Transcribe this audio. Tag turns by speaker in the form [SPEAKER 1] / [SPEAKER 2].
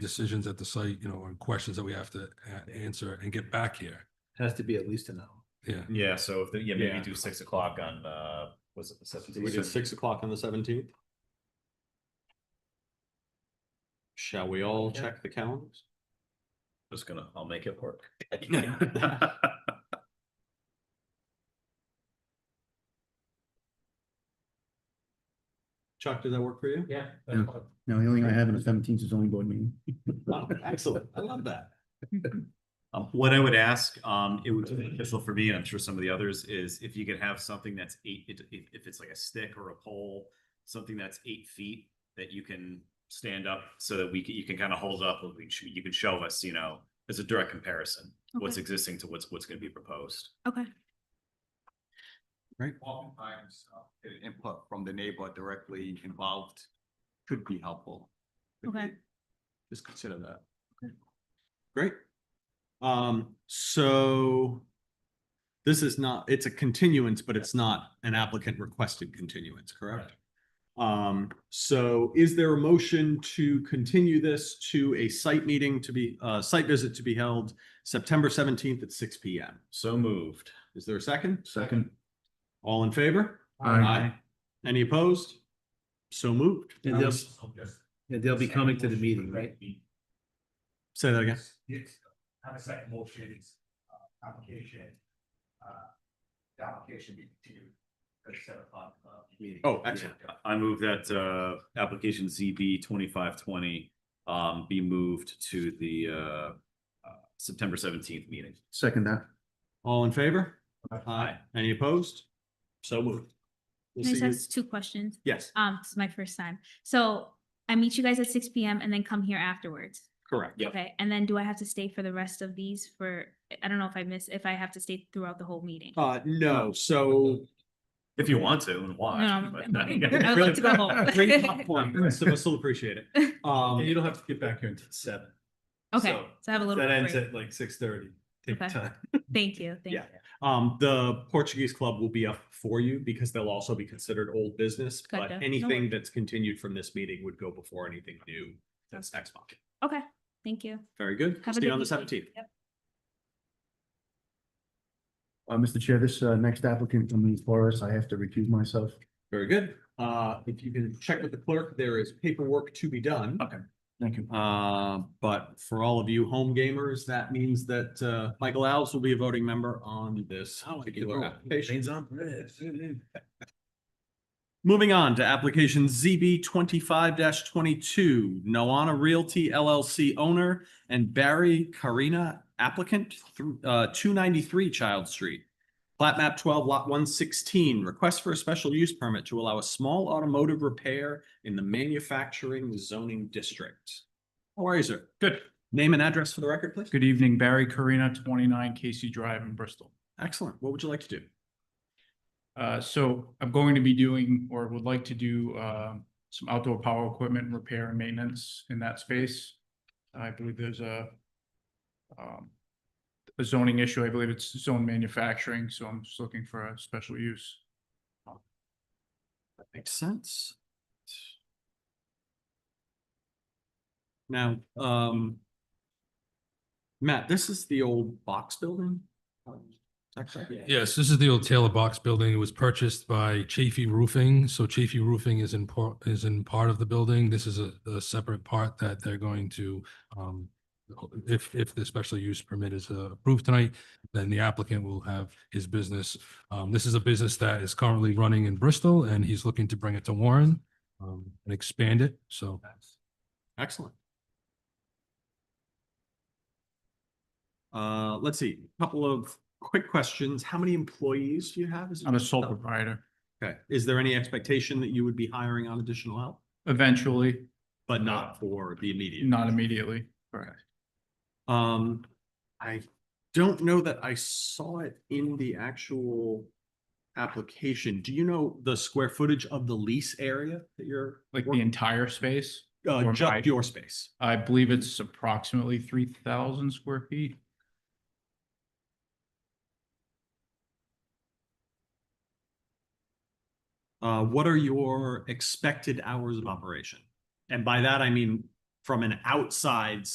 [SPEAKER 1] decisions at the site, you know, and questions that we have to a- answer and get back here.
[SPEAKER 2] Has to be at least an hour.
[SPEAKER 1] Yeah,
[SPEAKER 3] Yeah, so if, the- yeah, maybe
[SPEAKER 4] Yeah.
[SPEAKER 3] do six o'clock on, uh, was it the
[SPEAKER 4] Did we do
[SPEAKER 3] seventeenth?
[SPEAKER 4] six o'clock on the seventeenth? Shall we all check the calendars?
[SPEAKER 3] Just gonna, I'll make it work.
[SPEAKER 4] Chuck, does that work for you?
[SPEAKER 2] Yeah.
[SPEAKER 5] Yeah. No, the only thing I have on the seventeenth is zoning board meeting.
[SPEAKER 4] Wow, Excellent. I love that.
[SPEAKER 3] Um, what I would ask, um, it would be beneficial for me, and I'm sure some of the others, is if you could have something that's eight, it- if, if it's like a stick or a pole, something that's eight feet that you can stand up so that we can, you can kind of hold up, and we sh- you can show us, you know, as a direct comparison, what's
[SPEAKER 6] Okay.
[SPEAKER 3] existing to what's, what's gonna be proposed.
[SPEAKER 6] Okay.
[SPEAKER 7] oftentimes uh, i- input from the neighbor directly involved could be helpful.
[SPEAKER 6] Okay.
[SPEAKER 7] Just consider that.
[SPEAKER 4] Great. Um, so this is not, it's a continuance, but it's not an applicant requested continuance, correct? Um, so is there a motion to continue this to a site meeting to be, uh, site visit to be held September seventeenth at six P M?
[SPEAKER 3] So moved.
[SPEAKER 4] Is there a second?
[SPEAKER 5] Second.
[SPEAKER 4] All in favor?
[SPEAKER 5] Aye.
[SPEAKER 4] Any opposed? So moved.
[SPEAKER 5] And they'll, yeah, they'll be coming to the meeting, right?
[SPEAKER 4] Say that again.
[SPEAKER 8] Yes, have a second motion is, uh, application. uh, The application be continued at seven o'clock, uh, meeting.
[SPEAKER 4] Oh, excellent.
[SPEAKER 3] I move that uh application ZB twenty-five twenty um be moved to the uh. uh, September seventeenth meeting.
[SPEAKER 5] Second that.
[SPEAKER 4] All in favor?
[SPEAKER 3] Aye.
[SPEAKER 4] Any opposed? So moved. We'll
[SPEAKER 6] Can I
[SPEAKER 4] see
[SPEAKER 6] just
[SPEAKER 4] you-
[SPEAKER 6] ask two questions?
[SPEAKER 4] Yes,
[SPEAKER 6] Um, this is my first time. So I meet you guys at six P M and then come here afterwards.
[SPEAKER 4] correct.
[SPEAKER 3] Yep.
[SPEAKER 6] Okay, and then do I have to stay for the rest of these for, I don't know if I miss, if I have to stay throughout the whole meeting?
[SPEAKER 4] Uh, no, so.
[SPEAKER 3] If you want to and watch.
[SPEAKER 6] No,
[SPEAKER 3] but-
[SPEAKER 6] I'm- I'm- I would like to go home.
[SPEAKER 4] Great popcorn, so we'll still appreciate it. Um,
[SPEAKER 2] don't have to get back here until seven.
[SPEAKER 6] Okay,
[SPEAKER 2] So,
[SPEAKER 6] so I have a little.
[SPEAKER 2] That ends
[SPEAKER 6] break.
[SPEAKER 2] at like six thirty. Take your
[SPEAKER 6] Okay.
[SPEAKER 2] time.
[SPEAKER 6] Thank you, thank you.
[SPEAKER 4] Yeah. um, the Portuguese club will be up for you because they'll also be considered old business. But
[SPEAKER 6] Gotcha. No
[SPEAKER 4] anything
[SPEAKER 6] worries.
[SPEAKER 4] that's continued from this meeting would go before anything new that's next month.
[SPEAKER 6] Okay, thank you.
[SPEAKER 4] Very good.
[SPEAKER 6] Have a
[SPEAKER 4] See you
[SPEAKER 6] good
[SPEAKER 4] on the
[SPEAKER 6] evening.
[SPEAKER 4] seventeenth.
[SPEAKER 6] Yep.
[SPEAKER 5] Uh, Mr. Chair, this, uh, next applicant coming for us, I have to recuse myself.
[SPEAKER 4] Very good. Uh, if you can check with the clerk, there is paperwork to be done.
[SPEAKER 3] Okay.
[SPEAKER 5] Thank you.
[SPEAKER 4] Uh, but for all of you home gamers, that means that, uh, Michael Alves will be a voting member on this
[SPEAKER 5] Oh,
[SPEAKER 4] particular application. Moving on to application ZB twenty-five twenty-two, Noana Realty LLC owner and Barry Karina applicant, through, uh, two ninety-three Child Street. Plat map twelve lot one sixteen, request for a special use permit to allow a small automotive repair in the manufacturing zoning district. How are you, sir?
[SPEAKER 9] Good.
[SPEAKER 4] Name and address for the record, please.
[SPEAKER 9] Good evening, Barry Karina, twenty-nine Casey Drive in Bristol.
[SPEAKER 4] Excellent. What would you like to do?
[SPEAKER 9] Uh, so I'm going to be doing or would like to do, uh, some outdoor power equipment repair and maintenance in that space. I believe there's a, um, a zoning issue. I believe it's zone manufacturing, so I'm just looking for a special use.
[SPEAKER 4] That makes sense. Now, um. Matt, this is the old box building? Is that correct?
[SPEAKER 1] yes, this is the old Taylor Box building. It was purchased by Chafee Roofing, so Chafee Roofing is in part, is in part of the building. This is a, a separate part that they're going to, um, if, if the special use permit is uh, approved tonight, then the applicant will have his business. Um, this is a business that is currently running in Bristol and he's looking to bring it to Warren, um, and expand it, so.
[SPEAKER 4] Excellent. Uh, let's see, couple of quick questions. How many employees do you have? Is it
[SPEAKER 9] I'm a sole
[SPEAKER 4] just-
[SPEAKER 9] proprietor.
[SPEAKER 4] Okay, is there any expectation that you would be hiring on additional help?
[SPEAKER 9] Eventually,
[SPEAKER 4] But not for the immediate?
[SPEAKER 9] not immediately.
[SPEAKER 4] Um, I don't know that I saw it in the actual application. Do you know the square footage of the lease area that you're?
[SPEAKER 9] Like the
[SPEAKER 4] work-
[SPEAKER 9] entire space,
[SPEAKER 4] Uh,
[SPEAKER 9] or my-
[SPEAKER 4] just your space.
[SPEAKER 9] I believe it's approximately three thousand square feet.
[SPEAKER 4] Uh, what are your expected hours of operation? And by that, I mean,
[SPEAKER 3] from an outside